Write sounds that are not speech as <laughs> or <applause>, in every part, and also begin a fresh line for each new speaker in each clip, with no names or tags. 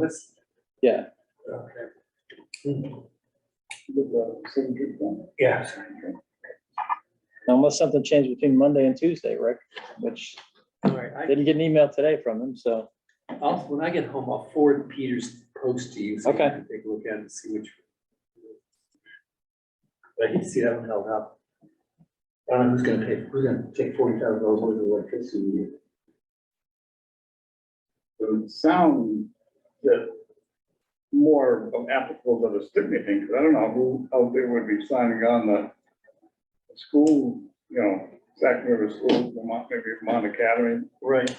This,
Yeah.
okay,
With the same group then.
yeah,
Unless something changed between Monday and Tuesday, Rick, which
all right, I,
didn't get an email today from them, so,
I'll, when I get home, I'll forward Peter's post to you. so you
Okay.
can Take a look at it and see which. But I hate to see that one held up. I don't know who's gonna pay, who's gonna take forty thousand dollars worth of electricity.
It would sound that more applicable to the Stickney thing, because I don't know who out there would be signing on the school, you know, Sac River School, Vermont, maybe Vermont Academy,
Right.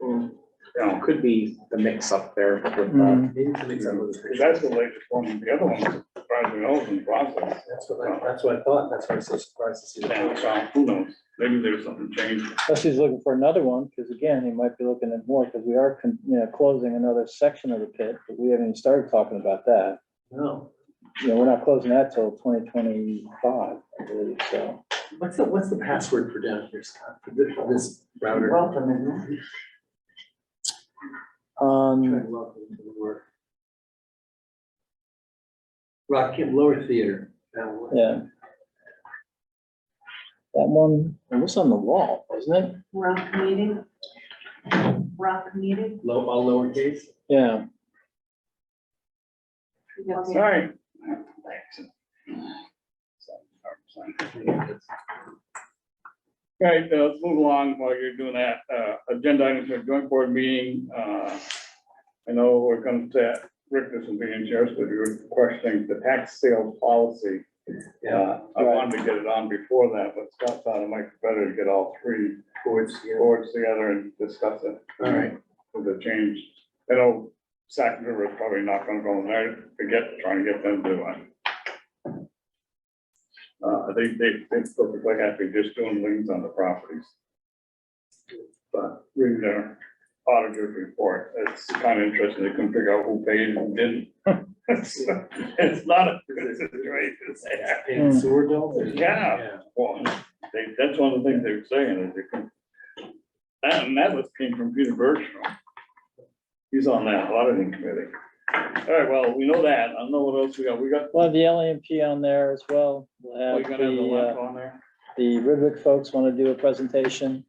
or, you know,
Could be the mix up there with, uh,
Mm,
Maybe something's up with the
'cause
picture.
that's the latest one. The other one's surprisingly old in process.
That's what I, that's what I thought, that's why I was so surprised to see
And
that.
so, who knows? Maybe there's something changed.
unless he's looking for another one, because again, he might be looking at more, because we are, con- you know, closing another section of the pit, but we haven't even started talking about that.
No,
You know, we're not closing that till twenty twenty-five, I believe, so.
what's the, what's the password for down here, Scott, for this, for this router? Welcome,
Um,
Welcome to the work. Rock Kid Lower Theater. that one.
yeah. That one, it was on the wall, wasn't it?
Rock meeting? Rock meeting?
Low, all lowercase?
Yeah,
All right. All right, uh, let's move along while you're doing that. Uh, Agenda items for joint board meeting. uh, I know we're going to, Rick, this will be in yours, but you're questioning the tax sale policy. Uh, I wanted to get it on before that, but Scott thought it might be better to get all three
Boards, yeah.
boards together and discuss it.
All right,
With the change. I know Sac River is probably not gonna go in there to get, trying to get them to one. Uh, they, they, they're perfectly happy just doing liens on the properties. But reading their auditor's report, it's kind of interesting. They couldn't figure out who paid and who didn't. <laughs> It's not a good situation.
and sewer bills? or-
Yeah. Well, they, that's one of the things they were saying, is they can. That, and that was came from Peter Bergstrom. He's on that auditing committee. All right, well, we know that. I don't know what else we got. We got,
we'll have the LAMP on there as well. We'll
we
have
got the
the, uh,
link on there.
The Ridwick folks want to do a presentation,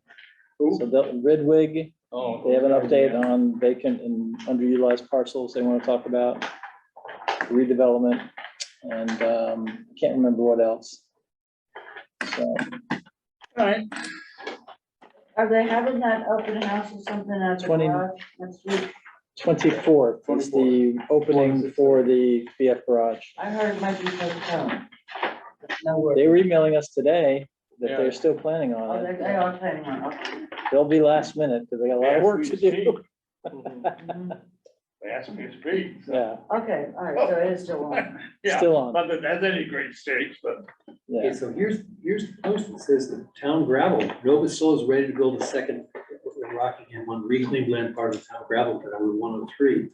so
Who?
the Ridwick,
Oh,
they have an
okay,
update
yeah.
on vacant and underutilized parcels they want to talk about. Redevelopment and um, can't remember what else. So,
All right,
Are they having that open house or something at the
20
garage next week?
twenty-fourth is the opening for the BF garage.
I heard it might be postponed. No word.
They were emailing us today that
Yeah.
they're still planning
Oh,
on
they,
it.
they are planning on, okay.
They'll be last minute because they got a lot of work to do.
Mhm.
<laughs>
Mhm.
They asked me to speak, so,
Yeah,
Okay, all right, so it is still on.
yeah,
still on,
not that that's any great stakes, but
yeah.
Okay, so here's, here's the post that says the town gravel, Nova Soul is ready to build a second Rockingham one reclaimed land part of the town gravel pit on Route one oh three.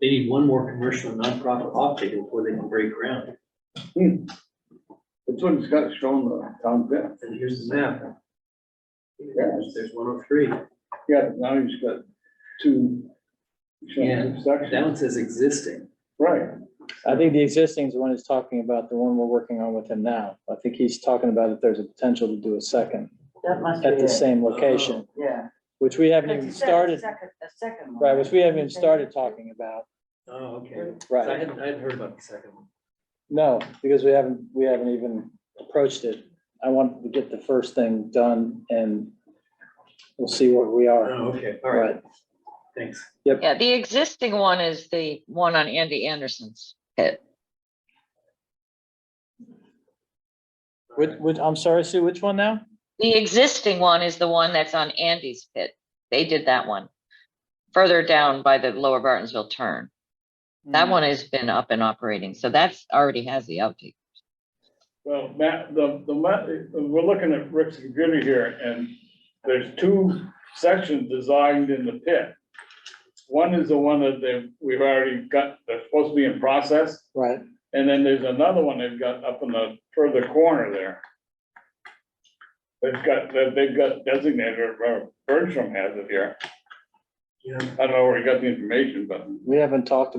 They need one more commercial and nonprofit offtake before they can break ground,
Hmm. that's what Scott's showing the town bit.
and here's the map. There's, there's one oh three,
Yeah, now he's got two. showing two
that
Sections,
one says existing.
right.
I think the existing is the one he's talking about, the one we're working on with him now. I think he's talking about if there's a potential to do a second
That must be
at the
it,
same location,
yeah.
which we haven't
Because
even
it said a
started,
second- A second one.
right, which we haven't even started talking about,
Oh, okay. So I
right?
hadn't, I hadn't heard about the second one.
No, because we haven't, we haven't even approached it. I want to get the first thing done and we'll see where we are.
Oh, okay, all right, thanks.
Yeah, the existing one is the one on Andy Anderson's pit.
Which, which, I'm sorry, Sue, which one now?
The existing one is the one that's on Andy's pit. They did that one. Further down by the Lower Bartonsville turn.
Hmm.
That one has been up and operating, so that's already has the update.
Well, Matt, the, the, ma- we're looking at Rick's computer here, and there's two sections designed in the pit. One is the one that they, we've already got, that's supposed to be in process,
Right,
and then there's another one they've got up in the further corner there. They've got, that they've got designated, or Bertram has it here.
Yeah.
I don't know where he got the information, but.
We haven't talked